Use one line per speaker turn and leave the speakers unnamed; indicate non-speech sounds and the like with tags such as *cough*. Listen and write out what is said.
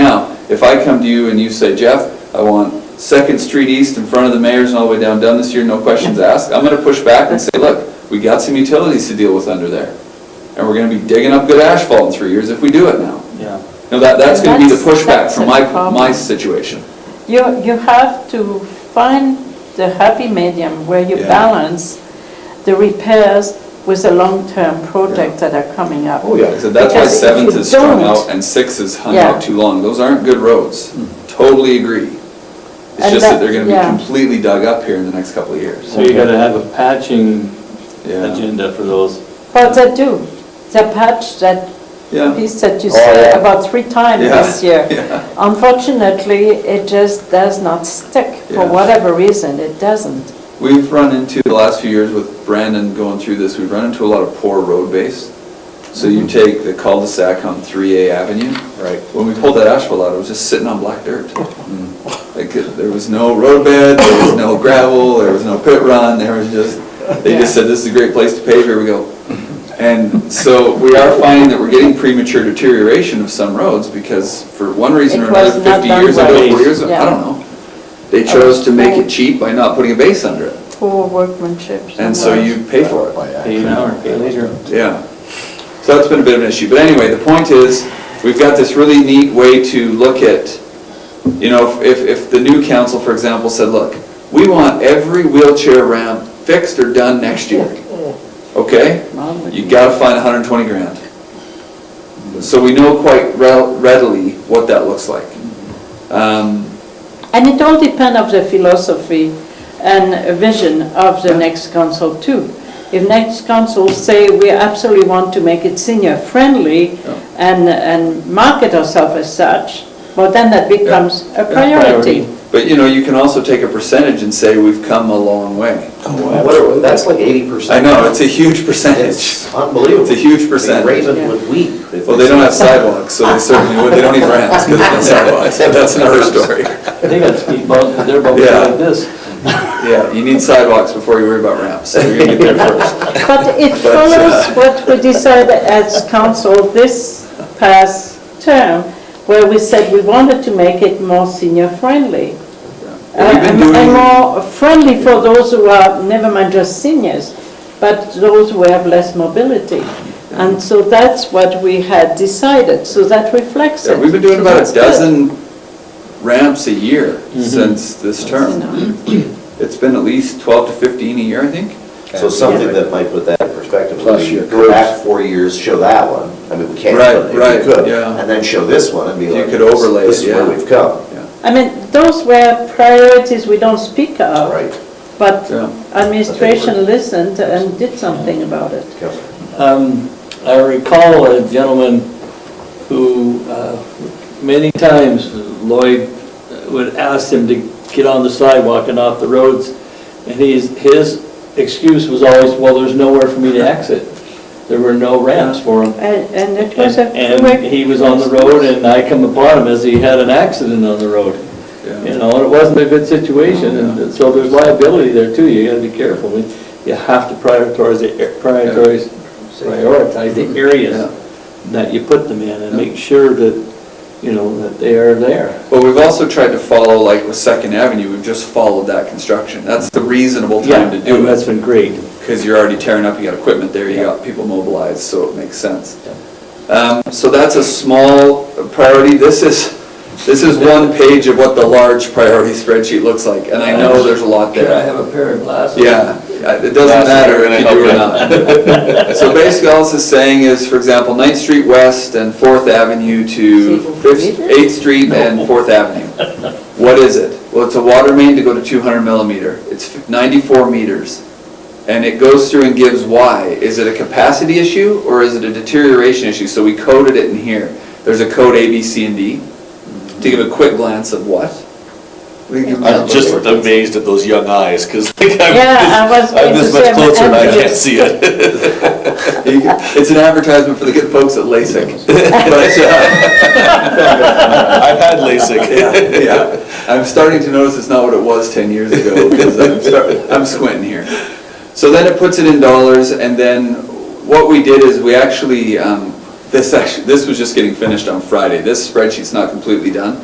if I come to you and you say, Jeff, I want Second Street East in front of the mayor's and all the way down done this year, no questions asked, I'm gonna push back and say, look, we got some utilities to deal with under there. And we're gonna be digging up good asphalt in three years if we do it now.
Yeah.
No, that, that's gonna be the
That's-
pushback
that's
from
a
my,
problem.
my situation.
You, you have to find the happy medium where you
Yeah.
balance the repairs with the long-term projects that are coming up.
Oh, yeah. So that's why
Because if
seventh
you
is strung
don't-
out and six is hung
Yeah.
out too long. Those aren't good roads. Totally agree. It's
And
just that
that-
they're gonna be
yeah.
completely dug up here in the next couple of years.
So you gotta have a patching
Yeah.
agenda for those.
But they do, the patch that
Yeah.
piece that you
Oh, yeah.
said about three times
Yeah,
this year.
*laughs* yeah.
Unfortunately, it just does not stick, for
Yeah.
whatever reason, it doesn't.
We've run into, the last few years with Brandon going through this, we've run into a lot of poor road base. So
Mm-hmm.
you take the cul-de-sac on 3A Avenue.
Right.
When we pulled that asphalt out, it was just sitting on black
*laughs*
dirt. Mm. Like, it- there was no road bed, there was no gravel, there was no pit run, there was just, they just said, this is a great place to pave, here we go. And so we are finding that we're getting premature deterioration of some roads because for one reason or
It
another,
was not
50
done
years
well.
ago, 40 years ago, I
Yeah.
don't know. They chose to make it cheap by not putting a base under it.
Poor workmanship.
And so
somewhere.
you pay for it,
By
Pay
accident.
now or pay later.
yeah. So that's been a bit of an issue, but anyway, the point is, we've got this really neat way to look at, you know, if, if the new council, for example, said, look, we want every wheelchair ramp fixed or done next year, okay? You gotta find hundred and twenty grand. So we know quite rel- readily what that looks like. Um,
And it all depends of the philosophy and vision of the next council too. If next council say, we absolutely want to make it senior friendly
Yeah.
and, and market ourselves as such, well, then that becomes a
priority.
priority.
But, you know, you can also take a percentage and say, we've come a long way.
What a- That's like eighty
I
percent.
know, it's a huge percentage.
It's unbelievable.
It's a huge
I mean,
percentage.
Raven would weep. if
Well, they don't have
saw
sidewalks, so they certainly, would. they don't even ramps, because they don't have sidewalks, but *laughs* that's another story.
They got speed bumps, but they're bumping
Yeah.
like this.
Yeah, you need sidewalks before you worry about ramps, so you're gonna get there
*laughs*
first.
But it follows what we decided as council this past term, where we said we wanted to make it more senior friendly.
Well, we've been
Uh, And- And
doing-
more friendly for those who are, never mind just seniors, but those who have less mobility. And so that's what we had decided, so that reflects
Yeah,
it.
We've been doing
So
about
that's
a
good.
dozen ramps a year
Mhm.
since this
You
term.
know.
It's been at least twelve to fifteen a year, I think.
So something that might put that in perspective, would
Plus
be
your
go back four years, show that one, I mean, we can't,
Right,
but if
right,
we could,
yeah.
and then show this one and be
You
like,
could overlay
this
it,
is where
yeah.
we've come,
Yeah.
I mean, those were priorities we don't speak of.
right?
But
Yeah.
administration listened and did something about it.
Councilor.
Um, I recall a gentleman who, uh, many times Lloyd uh, would ask him to get on the sidewalk and off the roads, and he's, his excuse was always, well, there's nowhere for me to exit. There were no ramps for him.
And and it was a
And
correct-
and he was on the road, and I come upon him as he had an accident on the road. You know, and it wasn't a good situation, and so there's liability there too, you gotta be careful. We- You have to prioritize, the ar- prioritize, prioritize the
Yeah.
areas that you put them in, and make sure that, you know, that they are there.
But we've also tried to follow, like with Second Avenue, we've just followed that construction. That's the reasonable time to
and
do
That's
it,
been great.
because you're already tearing up, you got equipment there, you
Yeah.
got people mobilized, so it makes sense. Um, So that's a small priority. This is, this is one page of what the large priority spreadsheet looks like, and I know there's a lot
Could I
there.
have a pair of glasses?
Yeah, uh, it doesn't matter if you do or not. *laughs* So basically, all this is saying is, for example, Ninth Street West and Fourth Avenue to
Is it
Fifth-
completed?
Eighth Street and Fourth Avenue. What is it? Well, it's a water main to go to 200 millimeter. It's 94 meters. And it goes through and gives why. Is it a capacity issue or is it a deterioration issue? So we coded it in here. There's a code A, B, C, and D to give a quick glance of what. What do you give them
I'm
that
just
look for?
amazed at those young eyes, because like
Yeah, I
I'm
was
this-
going
I'm
to
this
say.
much
I'm
closer and I can't
envious.
see it. *laughs*
You can- It's an advertisement for the good folks at LASIK. But, uh,
I've had LASIK.
yeah, yeah. I'm starting to notice it's not what it was 10 years ago, because I'm start- I'm squinting here. So then it puts it in dollars, and then what we did is we actually, um, this actually, this was just getting finished on Friday. This spreadsheet's not completely done.